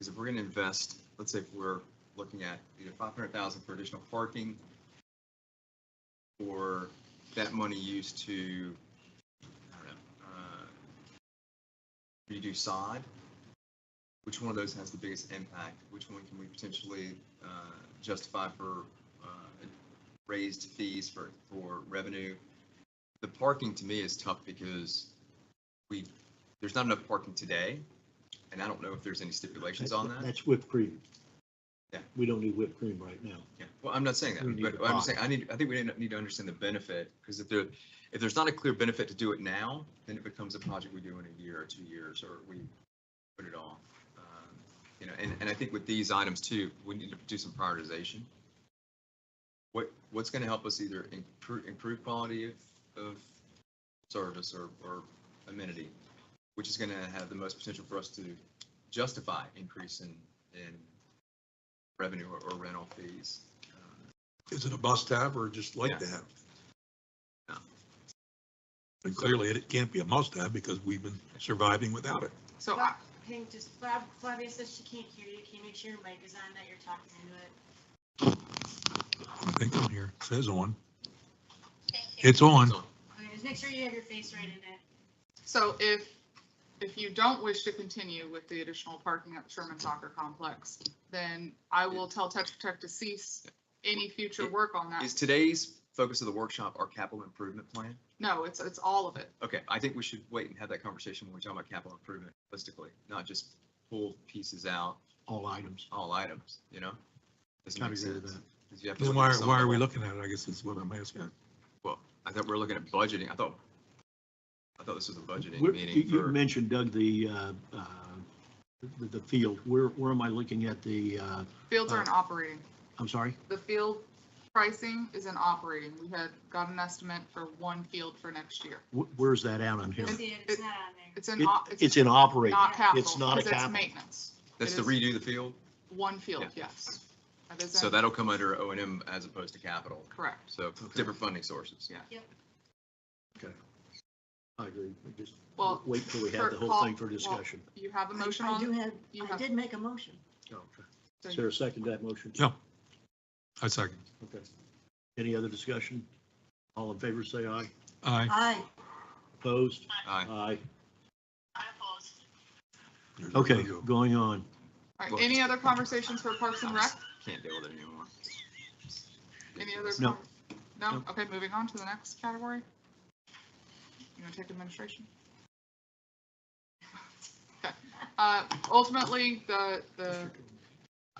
is if we're gonna invest, let's say if we're looking at either five hundred thousand for additional parking or that money used to, I don't know, uh, redo sod, which one of those has the biggest impact? Which one can we potentially uh, justify for uh, raised fees for, for revenue? The parking to me is tough because we, there's not enough parking today, and I don't know if there's any stipulations on that. That's whipped cream. Yeah. We don't need whipped cream right now. Yeah, well, I'm not saying We need that, to but I'm buy. just saying, I need, I think we need to understand the benefit, because if there, if there's not a clear benefit to do it now, then it becomes a project we do in a year or two years, or we put it off. Um, You know, and, and I think with these items too, we need to do some prioritization. What, what's gonna help us either improve, improve quality of, of service or, or amenity? Which is gonna have the most potential for us to justify increase in, in revenue or- or rental fees? Um, Is it a must have or just like to have? No. And clearly it can't be a must have because we've been surviving without it. So I, Fla- Can you just, Flav- Flavia says she can't hear you. Can you make sure your mic is on that you're talking into it? I think on here it says on. It's on. Okay, just make sure you have your face right in it. so if, if you don't wish to continue with the additional parking at the Sherman Soccer Complex, then I will tell Tetra Tech to cease any future work on that. Is today's focus of the workshop our capital improvement plan? No, it's, it's all of it. Okay, I think we should wait and have that conversation when we talk about capital improvement holistically, not just pull pieces out, All items. all items, you know? Doesn't Kind make of agree with sense. that. 'Cause you have to Then look why, at are- some why are we level. looking at it? I guess is what I'm asking. Well, I thought we were looking at budgeting. I thought, I thought this was a budgeting Where- You meeting you for, mentioned Doug, the, uh, uh, the, the field. Where, where am I looking at the, uh, Fields are in operating. I'm sorry? The field pricing is in operating. We had got an estimate for one field for next year. Wh- Where's that out on here? You'll see it. It's not on there. It's in, It- op- It's it's in operating. not capital. it's not a 'cause capital. Maintenance. that's it to is- redo the field. One field, Yeah. yes. That is So in- that'll come under O and M as opposed to capital. Correct. So different funding sources. Yeah. I agree. We Just Well, wait till we have for- the whole well, thing for well, discussion. you have a motion I do on, have, you I have- did make a motion. Okay. so Is there a second to that motion? Yeah. I second. Okay. Any other discussion? All in favor, say aye. Aye. Aye. Opposed? Aye. Aye. I oppose. There's no Okay, go. going on. All right, any other conversations for Parks and Rec? Can't deal with it anymore. Any other? No. com- No? No. Okay, moving on to the next category. You want to take administration? Okay. Uh, Ultimately, the, the,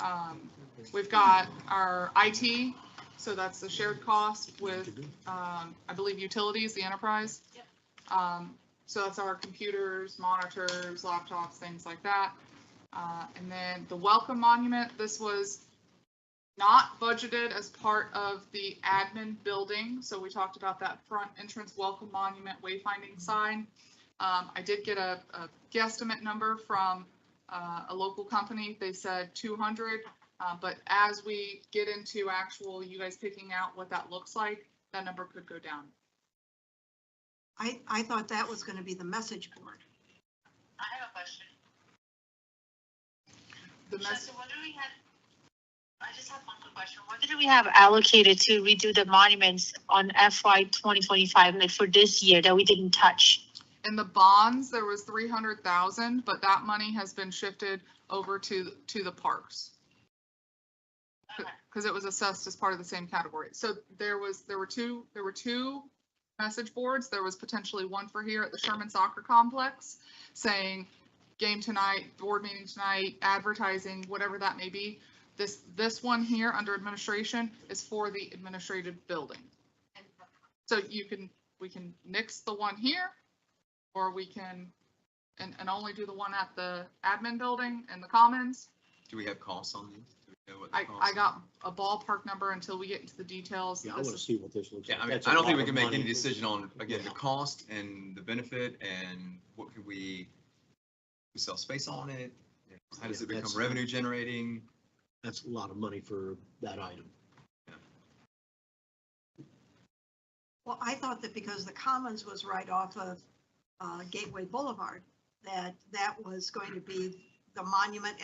um, we've got our IT, so that's the shared cost with, um, I believe utilities, the enterprise. Yep. Um, So that's our computers, monitors, laptops, things like that. Uh, And then the welcome monument, this was not budgeted as part of the admin building, so we talked about that front entrance welcome monument wayfinding sign. Um, I did get a, a guesstimate number from, uh, a local company, they said two hundred. Uh, but as we get into actual, you guys picking out what that looks like, that number could go down. I, I thought that was going to be the message board. I have a question. The mess, what do we have? I just have one quick question. What did we have allocated to redo the monuments on FY twenty twenty-five, like for this year that we didn't touch? in the bonds, there was three hundred thousand, but that money has been shifted over to, to the parks. because it was assessed as part of the same category. So there was, there were two, there were two message boards. There was potentially one for here at the Sherman Soccer Complex saying game tonight, board meeting tonight, advertising, whatever that may be. This, this one here under administration is for the administrative building. So you can, we can nix the one here or we can, and, and only do the one at the admin building and the commons. Do we have costs on these? Do we know what the I, costs I are? got a ballpark number until we get into the details. Yeah, I This want to is- see what this looks Yeah, like. I mean, That's a I don't think lot we can of make any money. decision on, again, the Yeah. cost and the benefit and what could we, we sell space on it? How does Yeah, it become that's- revenue generating? That's a lot of money for that item. Well, I thought that because the Commons was right off of uh, Gateway Boulevard, that that was going to be the monument